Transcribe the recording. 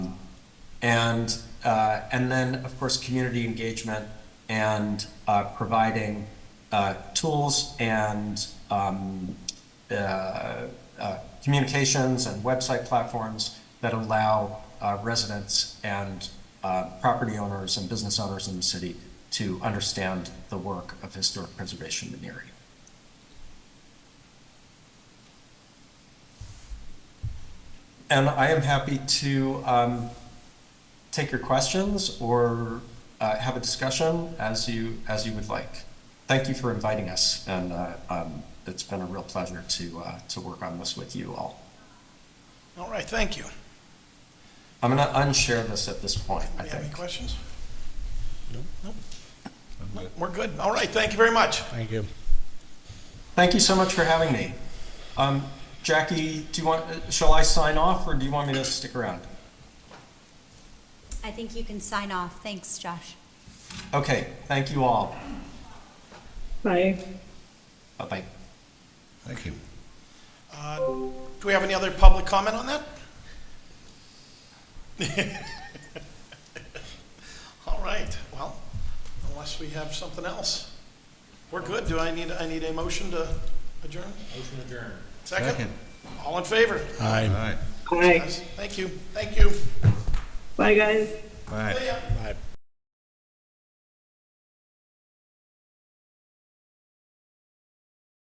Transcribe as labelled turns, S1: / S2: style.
S1: And, uh, and then, of course, community engagement and uh, providing uh, tools and um, uh, uh, communications and website platforms that allow uh, residents and uh, property owners and business owners in the city to understand the work of historic preservation in Erie. And I am happy to um, take your questions or uh, have a discussion as you as you would like. Thank you for inviting us, and uh, um, it's been a real pleasure to uh, to work on this with you all.
S2: All right, thank you.
S1: I'm going to unshare this at this point. I
S2: Do you have any
S1: think.
S2: questions? No. No, we're good. All right, thank you very much.
S3: Thank you.
S1: Thank you so much for having me. Um, Jackie, do you want? uh, Shall I sign off, or do you want me to stick around?
S4: I think you can sign off. Thanks, Josh.
S1: Okay. Thank you all.
S5: Bye.
S1: Bye bye.
S3: Thank you.
S2: Uh, Do we have any other public comment on that? All right, well, unless we have something else, we're good. Do I need, I need a motion to adjourn? Motion adjourn. Second?
S3: Second.
S2: All in favor?
S3: Aye. Aye.
S5: Bye.
S2: Yes. Thank you, thank you.
S5: Bye, guys.
S3: Bye.
S2: See ya.
S3: Bye.